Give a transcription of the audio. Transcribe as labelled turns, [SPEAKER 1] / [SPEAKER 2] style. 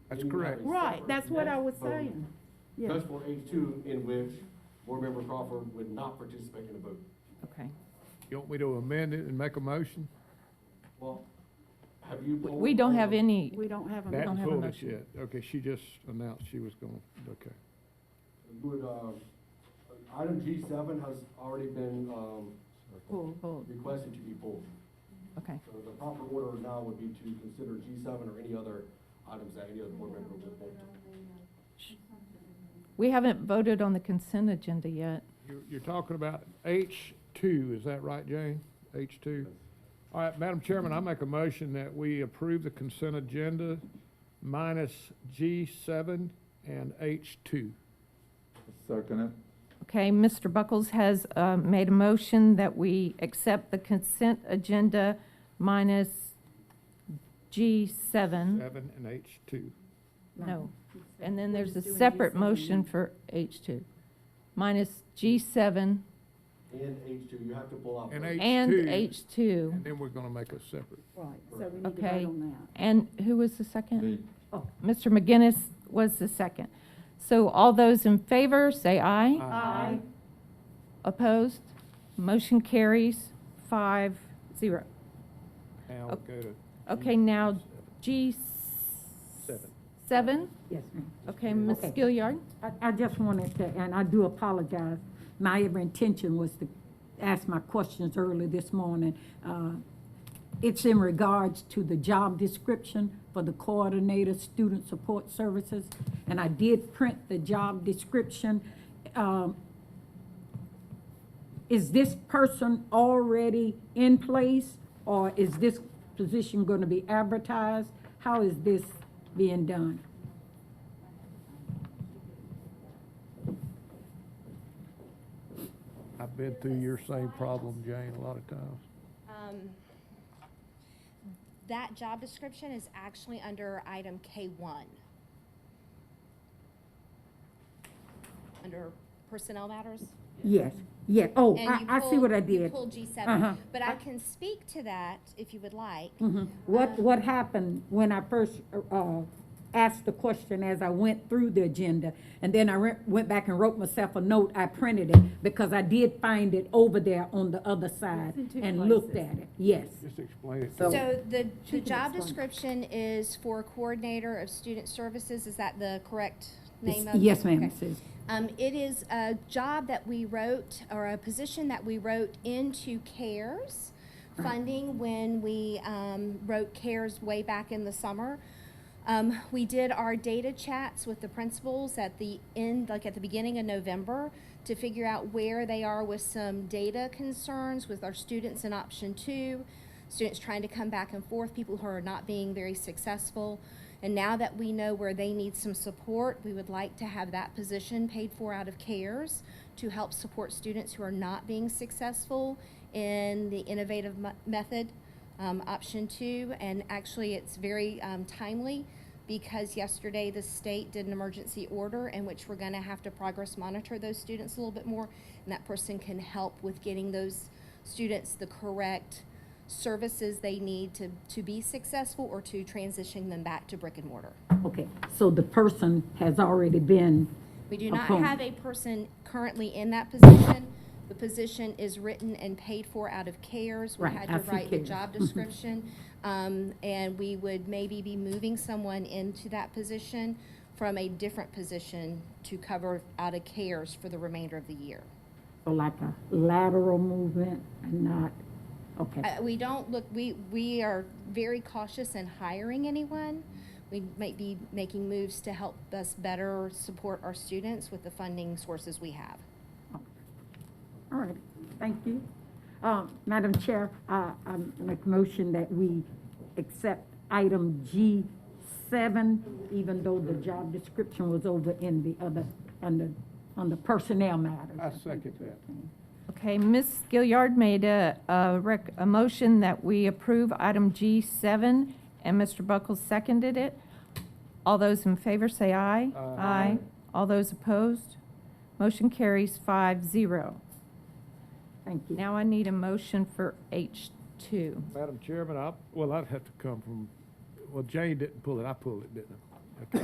[SPEAKER 1] That's
[SPEAKER 2] Then you have
[SPEAKER 1] correct.
[SPEAKER 2] a
[SPEAKER 3] Right,
[SPEAKER 2] separate
[SPEAKER 3] that's what I
[SPEAKER 2] net
[SPEAKER 3] was
[SPEAKER 2] vote
[SPEAKER 3] saying. Yeah,
[SPEAKER 2] Just for H two, in which Board Member Crawford would not participate in the vote.
[SPEAKER 3] okay.
[SPEAKER 1] You want me to amend it and make a motion?
[SPEAKER 2] Well, have you?
[SPEAKER 4] We- We don't
[SPEAKER 1] uh,
[SPEAKER 4] have any,
[SPEAKER 3] We don't have a.
[SPEAKER 1] That's
[SPEAKER 4] don't have a
[SPEAKER 1] foolish
[SPEAKER 4] motion.
[SPEAKER 1] yet. Okay, she just announced she was going, okay.
[SPEAKER 2] Would, uh, item G seven has already been, um,
[SPEAKER 3] Cool.
[SPEAKER 4] oh,
[SPEAKER 2] requested to be pulled.
[SPEAKER 4] okay.
[SPEAKER 2] So the proper order now would be to consider G seven or any other items that any other board member would want to.
[SPEAKER 4] We haven't voted on the consent agenda yet.
[SPEAKER 1] You're, you're talking about H two, is that right, Jane? H two? All right, Madam Chairman, I make a motion that we approve the consent agenda minus G seven and H two.
[SPEAKER 5] Second it.
[SPEAKER 4] Okay, Mr. Buckles has uh, made a motion that we accept the consent agenda minus G7.
[SPEAKER 1] Seven and H two.
[SPEAKER 4] No. And then there's a separate motion for H2, minus G7
[SPEAKER 2] And H two, you have to pull out.
[SPEAKER 1] And
[SPEAKER 2] both.
[SPEAKER 1] H-
[SPEAKER 4] and
[SPEAKER 1] H2.
[SPEAKER 4] H2.
[SPEAKER 1] And then we're gonna make a separate.
[SPEAKER 3] Right, so we need to
[SPEAKER 4] Okay.
[SPEAKER 3] vote on
[SPEAKER 4] And who was the second?
[SPEAKER 5] Me.
[SPEAKER 4] Mr. McGinnis was the second. So all those in favor, say aye.
[SPEAKER 3] that. Aye.
[SPEAKER 4] Opposed? Motion carries five, zero.
[SPEAKER 1] Now
[SPEAKER 4] Oh.
[SPEAKER 1] we'll go to.
[SPEAKER 4] Okay, now G
[SPEAKER 1] Seven.
[SPEAKER 4] seven?
[SPEAKER 6] Yes, ma'am.
[SPEAKER 4] Okay, Ms.
[SPEAKER 6] Okay.
[SPEAKER 4] Gilliard?
[SPEAKER 6] I, I just wanted to, and I do apologize. My ever intention was to ask my questions early this morning. Uh, It's in regards to the job description for the coordinator, student support services. And I did print the job description. Um, Is this person already in place or is this position going to be advertised? How is this being done?
[SPEAKER 1] I've been through your same problem, Jane, a lot of times.
[SPEAKER 7] Um, That job description is actually under item K1. Under personnel matters.
[SPEAKER 6] Yes, yes. Oh,
[SPEAKER 7] And
[SPEAKER 6] I,
[SPEAKER 7] you
[SPEAKER 6] I see what I
[SPEAKER 7] pulled- you
[SPEAKER 6] did.
[SPEAKER 7] pulled
[SPEAKER 6] Uh-huh.
[SPEAKER 7] G7, but I can speak to that if you would like.
[SPEAKER 6] Mhm. What, what happened when I first, uh, asked the question as I went through the agenda? And then I re- went back and wrote myself a note, I printed it, because I did find it over there on the other side
[SPEAKER 3] in two
[SPEAKER 6] and looked
[SPEAKER 3] places.
[SPEAKER 6] at it, yes.
[SPEAKER 1] Just explain it. to
[SPEAKER 6] So-
[SPEAKER 1] us.
[SPEAKER 7] So the,
[SPEAKER 6] She
[SPEAKER 7] the
[SPEAKER 6] can
[SPEAKER 7] job
[SPEAKER 6] explain.
[SPEAKER 7] description is for coordinator of student services. Is that the correct name
[SPEAKER 6] It's-
[SPEAKER 7] of? it?
[SPEAKER 6] Yes, ma'am,
[SPEAKER 7] Okay.
[SPEAKER 6] it says.
[SPEAKER 7] Um, it is a job that we wrote, or a position that we wrote into CARES funding when we, um, wrote CARES way back in the summer. Um, we did our data chats with the principals at the end, like at the beginning of November, to figure out where they are with some data concerns with our students in option two, students trying to come back and forth, people who are not being very successful. And now that we know where they need some support, we would like to have that position paid for out of CARES to help support students who are not being successful in the innovative mo- method, um, option two. And actually, it's very um, timely because yesterday the state did an emergency order in which we're going to have to progress monitor those students a little bit more. And that person can help with getting those students the correct services they need to, to be successful or to transition them back to brick and mortar.
[SPEAKER 6] Okay, so the person has already been,
[SPEAKER 7] We do not
[SPEAKER 6] Appoint-
[SPEAKER 7] have a person currently in that position. The position is written and paid for out of CARES. We
[SPEAKER 6] Right,
[SPEAKER 7] had
[SPEAKER 6] I
[SPEAKER 7] to
[SPEAKER 6] see
[SPEAKER 7] write the
[SPEAKER 6] CARES.
[SPEAKER 7] job description. Um, and we would maybe be moving someone into that position from a different position to cover out of CARES for the remainder of the year.
[SPEAKER 6] so like a lateral movement and not, okay.
[SPEAKER 7] Uh, we don't look, we, we are very cautious in hiring anyone. We might be making moves to help us better support our students with the funding sources we have.
[SPEAKER 6] All right, thank you. Um, Madam Chair, uh, I I make motion that we accept item G7, even though the job description was over in the other, under, under personnel matters.
[SPEAKER 1] I second that.
[SPEAKER 4] Okay, Ms. Gilliard made a, a rec, a motion that we approve item G7, and Mr. Buckles seconded it. All those in favor say aye.
[SPEAKER 1] Aye.
[SPEAKER 4] All those opposed? Motion carries five zero.
[SPEAKER 6] Thank you.
[SPEAKER 4] Now I need a motion for H2.
[SPEAKER 1] Madam Chairman, I, well, I'd have to come from, well, Jane didn't pull it, I pulled it, didn't I?